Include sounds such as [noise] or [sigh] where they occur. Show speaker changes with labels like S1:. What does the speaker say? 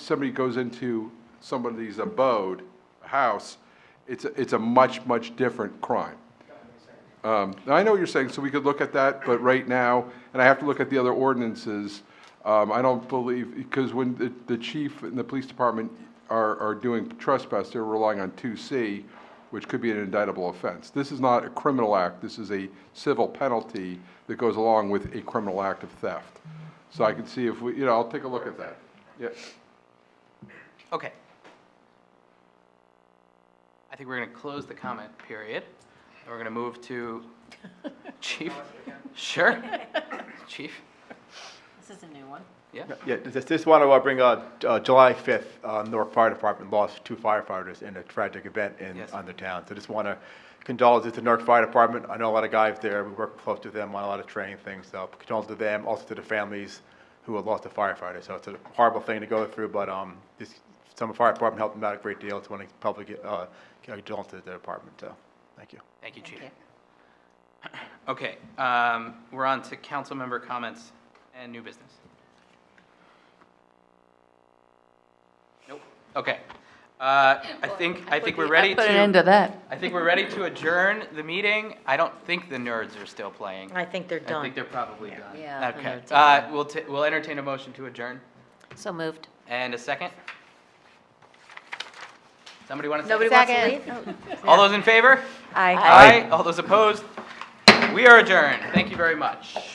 S1: somebody goes into somebody's abode, house, it's, a- it's a much, much different crime. Um, now, I know what you're saying, so we could look at that, but right now, and I have to look at the other ordinances, um, I don't believe, because when the, the chief and the police department are, are doing trespass, they're relying on two C, which could be an indictable offense. This is not a criminal act, this is a civil penalty that goes along with a criminal act of theft. So I can see if we, you know, I'll take a look at that. Yeah,
S2: Okay. I think we're going to close the comment period, and we're going to move
S3: [laughs]
S2: to Chief. Sure. Chief?
S4: This is a new one.
S2: Yeah?
S5: Yeah, this, this one I want to bring up, uh, July 5th, uh, Newark Fire Department lost two firefighters in a tragic event in,
S2: Yes.
S5: on the town. So just want to condolences to Newark Fire Department. I know a lot of guys there, we work close with them on a lot of training things, so condolences to them, also to the families who have lost a firefighter. So it's a horrible thing to go through, but, um, this, some fire department helped them out a great deal. It's one of the public, uh, condolences to the department, so, thank you.
S2: Thank you, Chief.
S4: you.
S2: Okay, um, we're on to council member comments and new business. Nope, okay. Uh, I think, I think we're ready to.
S3: Put an end to that.
S2: I think we're ready to adjourn the meeting. I don't think the nerds are still playing.
S4: I think they're
S2: I
S4: done.
S2: think they're probably done.
S4: Yeah, I
S2: Okay,
S4: think they're
S2: uh, we'll, ta- we'll entertain a motion to adjourn.
S4: So moved.
S2: And a second? Somebody want to second?
S3: Nobody wants to
S4: Second.
S3: leave?
S2: All those in favor?
S4: Aye.
S2: Aye. All those opposed? We are adjourned. Thank you very much.